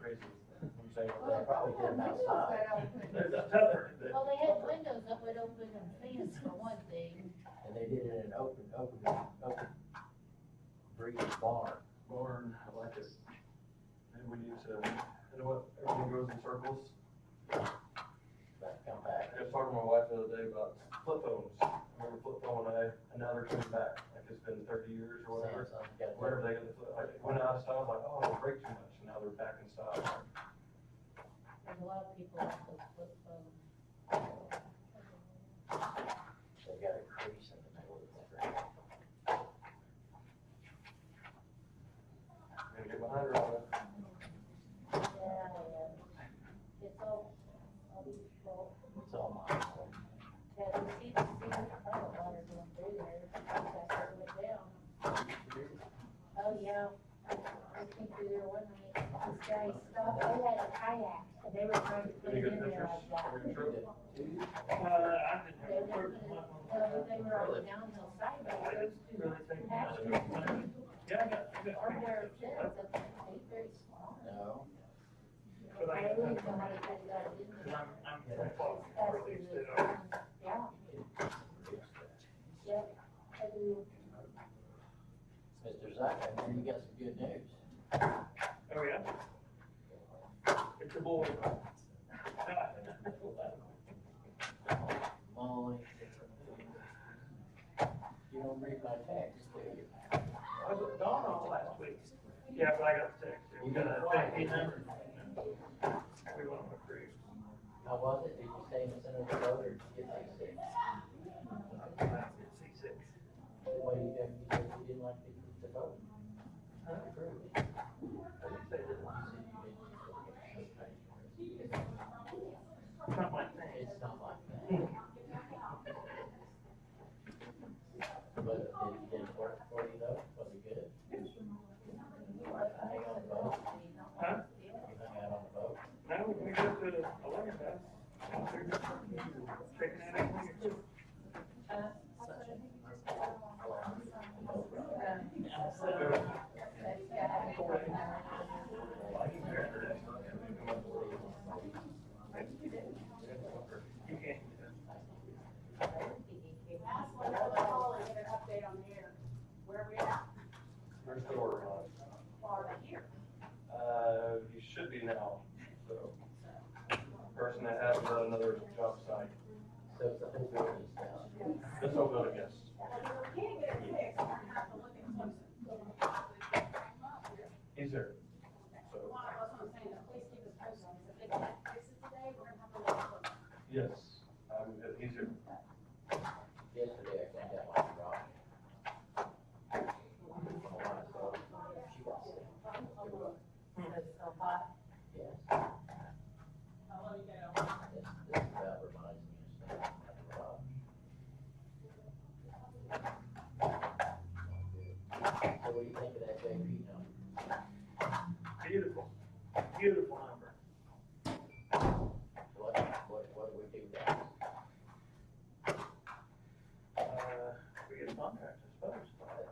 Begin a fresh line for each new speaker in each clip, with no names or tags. crazy. I'm saying,
Well,
I
the problem
probably
with
get them
windows
outside.
that open.
There's a cover that,
Well, they had windows that would open and fence for one thing.
And they did it in an open, open, open breed barn.
barn, I like it. Maybe we need to, you know what, everything goes in circles.
But come
I
back,
was talking to my wife the other day about flip phones. I remember flip phone, and I, and now they're coming back, like it's been thirty years or whatever.
Samsung got
Whenever
their,
they got the flip, like, it went out of style, I was like, oh, it'll break too much, and now they're back in style.
There's a lot of people that put flip phones.
they got a crease in the middle of the screen.
I'm gonna get behind her on that.
Yeah, yeah. It's all, all these people
It's all mine.
that you see the sea of current water going through there. That's how it went down. Oh, yeah. I came through there one night. This guy stopped, they had a kayak and they were trying to put
Any
it
good
in there
pictures?
like that.
Are you sure?
Uh, I didn't
They
have
were
a
gonna
first
put it-
one.
well, they were on the downhill side, but those two
Really think.
actually
Yeah, I got, I got.
are where it
pictures.
fits. I think they very small.
No,
But I
I
got
really
them.
don't know how they got it out, didn't
Cause
they?
I'm, I'm from Fox, or at least they are.
Yeah, yeah. I do.
Mr. Zucker, man, you got some good news.
Oh, yeah? It's a boy.
Molly. You don't read my text, do you?
I was at Dawn all last week. Yeah, but I got the text. We got a fifteen number. We want them approved.
How was it? Did you stay in the center of the road or did you get like six?
C six.
What do you think? You said you didn't like the, the vote?
I approved. I didn't say that. It's Not my thing.
It's not like that. But it did work for you though, was it good? Hang on the boat,
Huh?
you hung out on the boat.
No, we go to eleven best. Checking out everything. You can.
That's what I was calling, get an update on there, where we at,
Where's the order on it?
Florida here.
Uh, you should be now, so. Person that has another job site,
So it's the whole building is down.
this whole building, yes.
If we can't get it fixed, we're gonna have to look at closer.
He's there. So,
One, that's what I'm saying, the police keep us posted, on this. if they can't fix it today, we're gonna have to look closer.
yes, um, he's here.
Yesterday I came down like a rock. My wife saw it. She got sick.
It's so hot.
Yes,
I'll let you go.
this, this about reminds me of something like a rock. So what do you think of that JP number?
Beautiful, beautiful number.
What, what, what do we do now?
Uh, we get a contract, I suppose.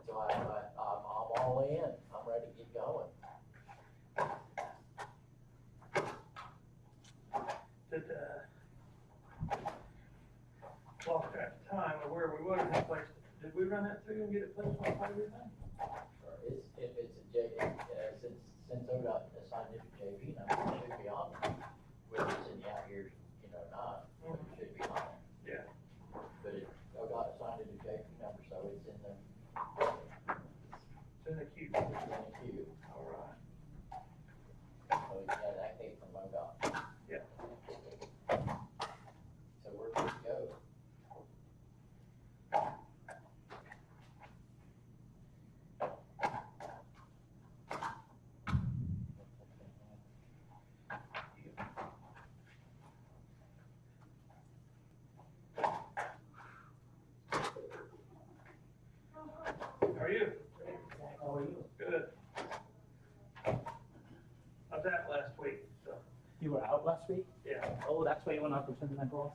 So I, I, I'm, I'm all in, I'm ready to get going.
Did, uh, lost track of time of where we was in the place. Did we run that through and get it placed on five years now?
It's, if it's a J, uh, since, since ODOT assigned it to JP, number, it should be on it. Whether it's in the out years, you know, not, but it should be on it.
Yeah.
But it, ODOT assigned it to JP number, so it's in the,
It's in the queue.
it's in the queue.
All right.
So yeah, that came from ODOT.
Yeah.
So we're good to go.
How are you?
How are you?
Good. I was out last week, so,
You were out last week?
yeah.
Oh, that's why you were not returning my calls?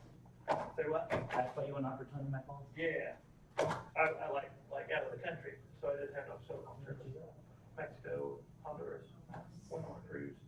Say what?
That's why you were not returning my calls?
Yeah. I, I like, like out of the country, so I didn't have no cell phone service. Mexico, Honduras, went on a cruise.